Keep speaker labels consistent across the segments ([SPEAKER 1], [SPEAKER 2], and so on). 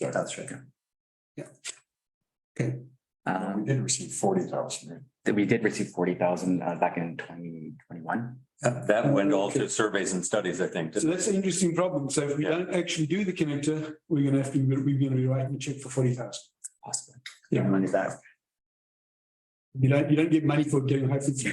[SPEAKER 1] Yeah, that's right.
[SPEAKER 2] Um,
[SPEAKER 3] did receive forty thousand.
[SPEAKER 2] that we did receive forty thousand uh back in twenty twenty-one.
[SPEAKER 4] That went all to surveys and studies, I think.
[SPEAKER 5] Um, So that's an interesting problem. So if we
[SPEAKER 4] Yeah.
[SPEAKER 5] don't actually do the connector, we're gonna have to, we're gonna be writing a check for forty thousand.
[SPEAKER 2] Possibly.
[SPEAKER 1] Give money back.
[SPEAKER 5] You don't, you don't get money for getting high frequency.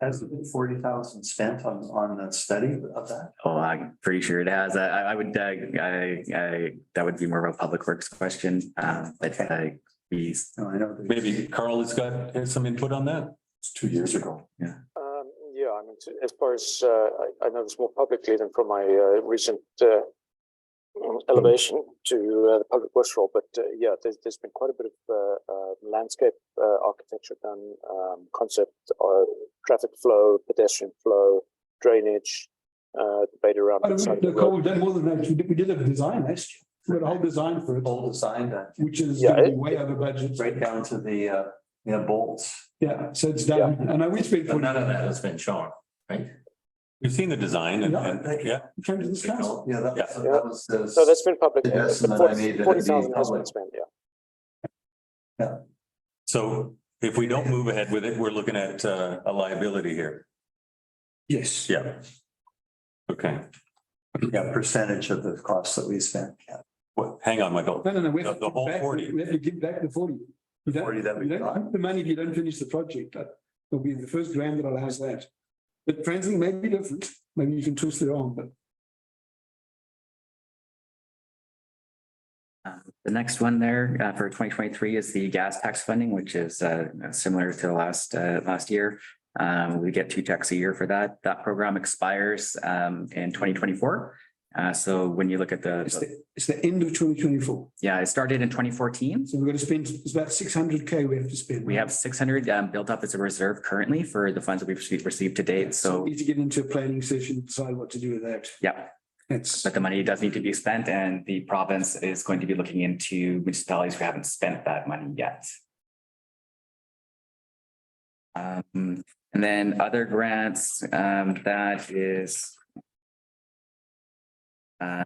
[SPEAKER 1] Has forty thousand spent on, on the study of that?
[SPEAKER 2] Oh, I'm pretty sure it has. I, I I would, uh, I, I, that would be more of a public works question, uh, but, uh, we,
[SPEAKER 1] No, I know. that-
[SPEAKER 4] Maybe Carl has got has some input on that.
[SPEAKER 3] It's two years ago.
[SPEAKER 6] Um, Yeah, I mean, t- as far as, uh, I I know this more publicly than from my uh, recent uh, um, elevation to uh, the public works role, but uh, yeah, there's, there's been quite a bit of uh, uh, landscape uh, architecture done, um, concept, uh, traffic flow, pedestrian flow, drainage, uh, debate around.
[SPEAKER 5] Oh,
[SPEAKER 6] the side of
[SPEAKER 5] no,
[SPEAKER 6] the
[SPEAKER 5] Carl,
[SPEAKER 6] road.
[SPEAKER 5] we've done more than that. We did, we did a design last year. We got a whole design for it,
[SPEAKER 1] Whole design, uh,
[SPEAKER 5] which is
[SPEAKER 6] Yeah,
[SPEAKER 5] gonna be
[SPEAKER 6] it-
[SPEAKER 5] way over budget.
[SPEAKER 1] right down to the, uh, you know, bolts.
[SPEAKER 5] Yeah, so it's done. And I, we spent
[SPEAKER 4] But
[SPEAKER 5] forty.
[SPEAKER 4] none of that has been shown, right? We've seen the design and, and- yeah,
[SPEAKER 5] Came to this council.
[SPEAKER 1] Yeah, that was, that was. uh, the-
[SPEAKER 6] So that's been public.
[SPEAKER 1] The estimate I made that
[SPEAKER 6] Forty
[SPEAKER 1] it'd be
[SPEAKER 6] thousand has been
[SPEAKER 1] public.
[SPEAKER 6] spent, yeah.
[SPEAKER 4] so if we don't move ahead with it, we're looking at uh, a liability here.
[SPEAKER 5] Yes.
[SPEAKER 4] Yeah. Okay,
[SPEAKER 1] Yeah, percentage of the cost that we spent. yeah.
[SPEAKER 4] well, hang on, Michael.
[SPEAKER 5] No, no, no. we have to
[SPEAKER 4] The- the
[SPEAKER 5] give
[SPEAKER 4] whole
[SPEAKER 5] back-
[SPEAKER 4] 40.
[SPEAKER 5] We have to give back the forty. You don't,
[SPEAKER 1] 40 that we
[SPEAKER 5] you don't
[SPEAKER 1] got.
[SPEAKER 5] keep the money if you don't finish the project. That will be the first grant that allows that. But Translink may be different. Maybe you can twist their arm, but
[SPEAKER 2] um, the next one there, uh, for twenty twenty-three is the gas tax funding, which is, uh, similar to the last, uh, last year. Um, we get two checks a year for that. That program expires, um, in twenty twenty-four. Uh, so when you look at
[SPEAKER 5] it's
[SPEAKER 2] the,
[SPEAKER 5] the, it's the end of twenty twenty-four.
[SPEAKER 2] yeah, it started in twenty fourteen.
[SPEAKER 5] So we're gonna spend, it's about six hundred K we have to spend.
[SPEAKER 2] We have six hundred um, built up as a reserve currently for the funds that we've received- received to date, so,
[SPEAKER 5] we Need to get into a planning session, decide what to do with that.
[SPEAKER 2] yeah.
[SPEAKER 5] That's,
[SPEAKER 2] But the money does need to be spent and the province is going to be looking into municipalities who haven't spent that money yet. Um, and then other grants, um, that is. uh,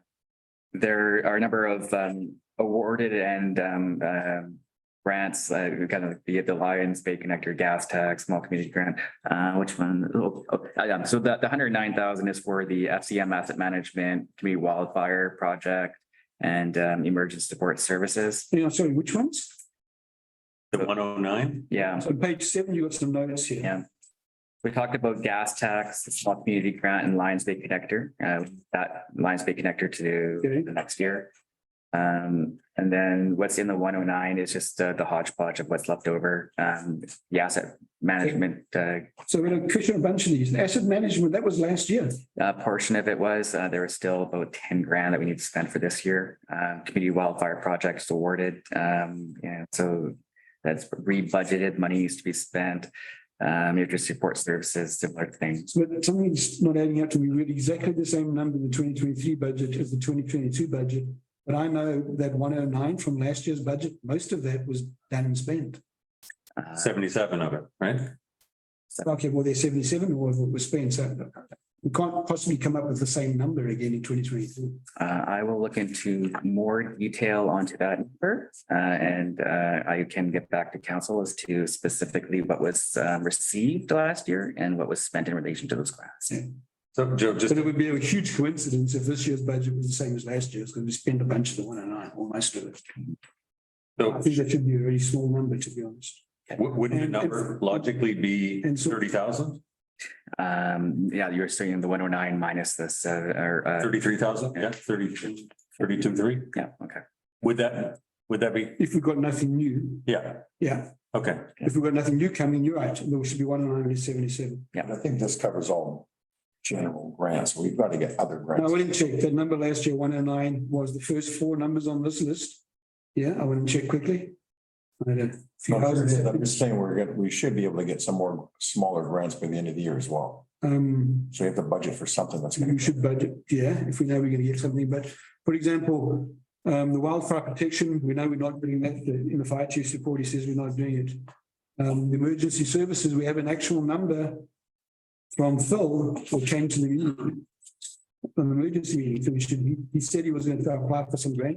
[SPEAKER 2] There are a number of, um, awarded and, um, um, grants, uh, kind of be it the Lions Bay Connector Gas Tax, Small Community Grant, uh, which one? Oh, oh, uh, yeah, so the, the hundred nine thousand is for the FCM Asset Management Community Wildfire Project and, um, Emergency Support Services.
[SPEAKER 5] you know, sorry, which ones?
[SPEAKER 4] The one oh nine,
[SPEAKER 2] Yeah,
[SPEAKER 5] So on page seven, you got some notes here.
[SPEAKER 2] yeah. We talked about gas tax, the Small Community Grant and Lions Bay Connector, uh, that Lions Bay Connector
[SPEAKER 5] Okay.
[SPEAKER 2] to the next year. Um, and then what's in the one oh nine is just uh, the hodgepodge of what's left over, um, the asset management, uh,
[SPEAKER 5] So we're gonna question a bunch of these. Asset management, that was last year.
[SPEAKER 2] uh, portion of it was, uh, there was still about ten grand that we need to spend for this year. Uh, community wildfire projects awarded, um, and so that's re-budgeted, money needs to be spent. Um, your support services, similar things.
[SPEAKER 5] So but something's not adding up to me. We had exactly the same number in the twenty twenty-three budget as the twenty twenty-two budget. But I know that one oh nine from last year's budget, most of that was done and spent.
[SPEAKER 2] Uh,
[SPEAKER 4] seventy-seven of it, right?
[SPEAKER 5] Okay, well, there's seventy-seven or what was spent, so we can't possibly come up with the same number again in twenty twenty-three.
[SPEAKER 2] uh, I will look into more detail onto that, number, uh, and, uh, I can get back to council as to specifically what was, um, received last year and what was spent in relation to those grants.
[SPEAKER 4] So Joe, just
[SPEAKER 5] But it would be a huge coincidence if this year's budget was the same as last year's, because we spent a bunch of the one oh nine, or most of it. I
[SPEAKER 4] so
[SPEAKER 5] think that should be a very small number, to be honest.
[SPEAKER 4] wou- wouldn't the number logically be
[SPEAKER 5] And so-
[SPEAKER 4] thirty thousand,
[SPEAKER 2] Um, yeah, you were saying the one oh nine minus this, uh, or, uh,
[SPEAKER 4] thirty-three thousand? Yeah, thirty-two, thirty-two, three.
[SPEAKER 2] yeah, okay.
[SPEAKER 4] Would that, would that be,
[SPEAKER 5] If we've got nothing new,
[SPEAKER 4] yeah,
[SPEAKER 5] yeah,
[SPEAKER 4] okay.
[SPEAKER 5] if we've got nothing new coming, you're right, there should be one oh nine and seventy-seven.
[SPEAKER 3] And I think this covers all general grants. We've got to get other
[SPEAKER 5] Now, I
[SPEAKER 3] grants.
[SPEAKER 5] went and checked, that number last year, one oh nine, was the first four numbers on this list. Yeah, I went and checked quickly. I had a few houses.
[SPEAKER 3] I'm just saying, we're, gonna- we should be able to get some more smaller grants by the end of the year as well.
[SPEAKER 5] Um,
[SPEAKER 3] So we have to budget for something that's going
[SPEAKER 5] We
[SPEAKER 3] to.
[SPEAKER 5] should budget, yeah, if we know we're gonna get something, but for example, um, the wildfire protection, we know we're not doing that, the, in the fire chief's report, he says we're not doing it. Um, the emergency services, we have an actual number from Phil for changing the meeting. From emergency meeting, so we should, he- he said he was gonna apply for some grant